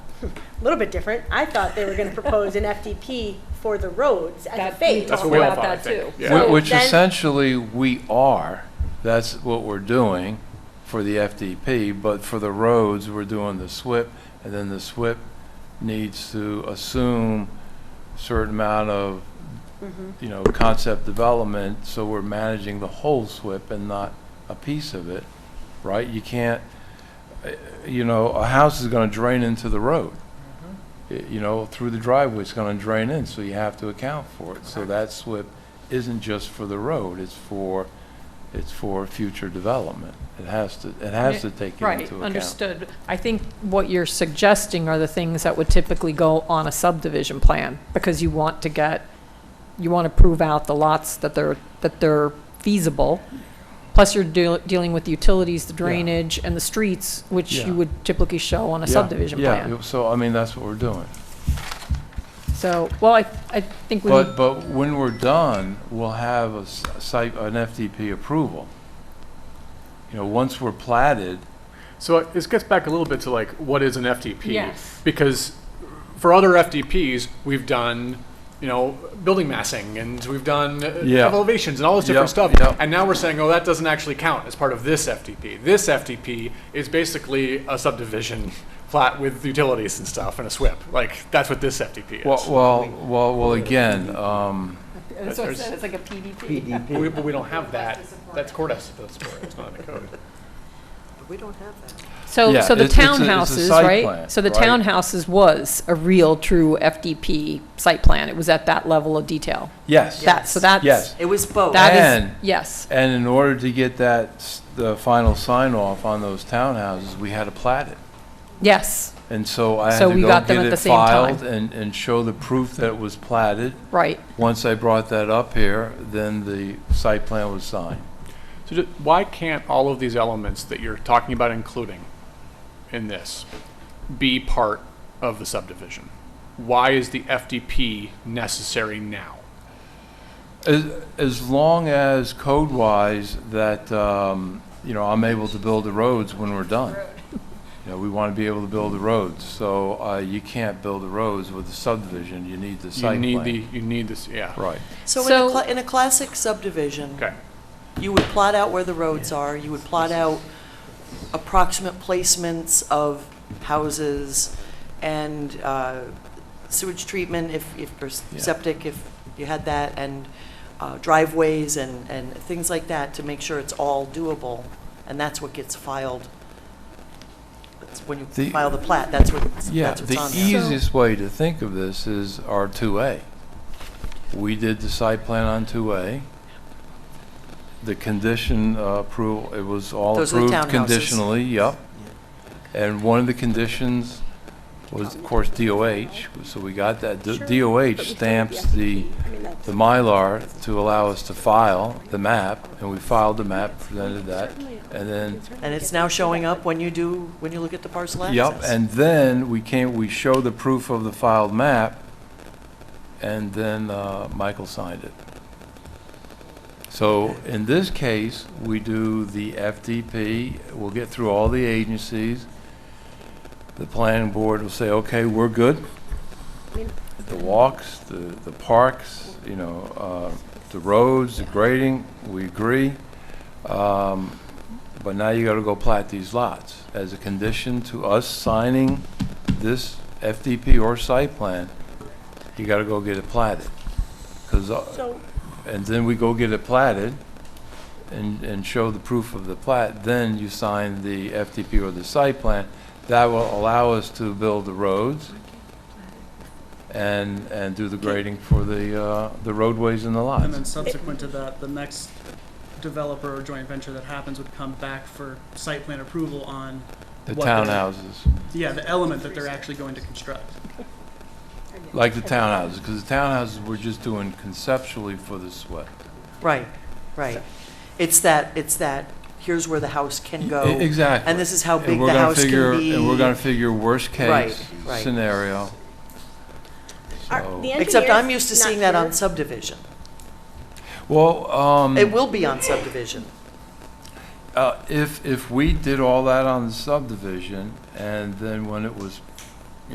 a little bit different. I thought they were going to propose an FDP for the roads as a That- phase. That's That's what what we we all all About thought, thought, I I that think. think. too. Yeah. So Wh- Which then- essentially we are, that's what we're doing for the FDP, but for the roads, we're doing the SWIP, and then the SWIP needs to assume certain amount of, Mhm. you know, concept development, so we're managing the whole SWIP and not a piece of it, right? You can't, uh, you know, a house is gonna drain into the road. Mm-hmm. Y- You know, through the driveway, it's gonna drain in, so you have to account for it. So that SWIP isn't just for the road, it's for, it's for future development. It has to, it has to take it into Right, account. understood. I think what you're suggesting are the things that would typically go on a subdivision plan, because you want to get, you want to prove out the lots that they're, that they're feasible. Plus you're deal- dealing with the utilities, the drainage, and the streets, which Yeah. you would typically show on a Yeah, subdivision yeah, plan. it- So, I mean, that's what we're doing. So, well, I, I think we, But, but when we're done, we'll have a s- site, an FDP approval. You know, once we're platted, So uh, this gets back a little bit to like, what is an FTP? Yes. Because for other FTPs, we've done, you know, building massing and we've done uh, Yeah. elevations and all this different Yep, stuff. yep. And now we're saying, oh, that doesn't actually count as part of this FTP. This FTP is basically a subdivision plat with utilities and stuff and a SWIP. Like, that's what this FTP is. well, well, well, well, again, um, that's what I said, it's like a PDP. But we- But we don't have that. That's court has to support it. It's not in the code. We don't have that. So, Yeah, so the it's- it's a- it's a townhouses, site right? plan, So the right. townhouses was a real, true FDP site plan. It was at that level of detail. yes. That, so Yes. that's. Yes. It was both. That is, And- yes, And in order to get that, s- the final sign off on those townhouses, we had to plat it. yes, And so I had So to we go got them get at the it same time. filed and, and show the proof that it was platted. right. Once I brought that up here, then the site plan was signed. So ju- why can't all of these elements that you're talking about including in this be part of the subdivision? Why is the FDP necessary now? As, as long as code-wise that, um, you know, I'm able to build the roads when we're done. You know, we want to be able to build the roads, so, uh, you can't build the roads with a subdivision, you need the You site need the, plan. you need this, yeah. Right. So in So- a, cla- in a classic subdivision, Okay, you would plot out where the roads are, you would plot out approximate placements of houses and uh, sewage treatment if, if, or s- Yeah. septic, if you had that, and uh, driveways and, and things like that to make sure it's all doable. And that's what gets filed. That's when The- you file the plat, that's what, Yeah, that's what's the E on there. easiest way to think of this is our 2A. We did the site plan on 2A. The condition uh, approval, it was all Those are the approved townhouses. conditionally, yep. And one of the conditions was, of course, DOH, so we got that. The Sure, DOH but we still have stamps the, FDP. I mean, that's- the Mylar to allow us to file the map, and we filed the map, presented that, Certainly. and then And it's now showing up when you do, when you look at the parcel access. Yep, and then we came, we show the proof of the filed map, and then uh, Michael signed it. So in this case, we do the FDP, we'll get through all the agencies. The planning board will say, okay, we're good. The walks, the, the parks, you know, uh, the roads, the grading, we agree. Um, but now you gotta go plat these lots. As a condition to us signing this FDP or site plan, you gotta go get it platted. 'Cause, uh, So, and then we go get it platted and, and show the proof of the plat, then you sign the FDP or the site plan. That will allow us to build the roads and, and do the grading for the, uh, the roadways and the And then lots. subsequent to that, the next developer or joint venture that happens would come back for site plan approval on, The what they're- townhouses. yeah, the element that they're actually going to construct. Like the townhouses, because the townhouses we're just doing conceptually for the SWIP. Right, right. It's that, it's that, here's where the house can go. E- Exactly. And this is how And big we're the gonna house figure- can be. And we're gonna figure worst case Right, right. scenario. are- So- the Except I'm engineer's used to not seeing that on here. subdivision. Well, um, It will be on subdivision. uh, if, if we did all that on the subdivision and then when it was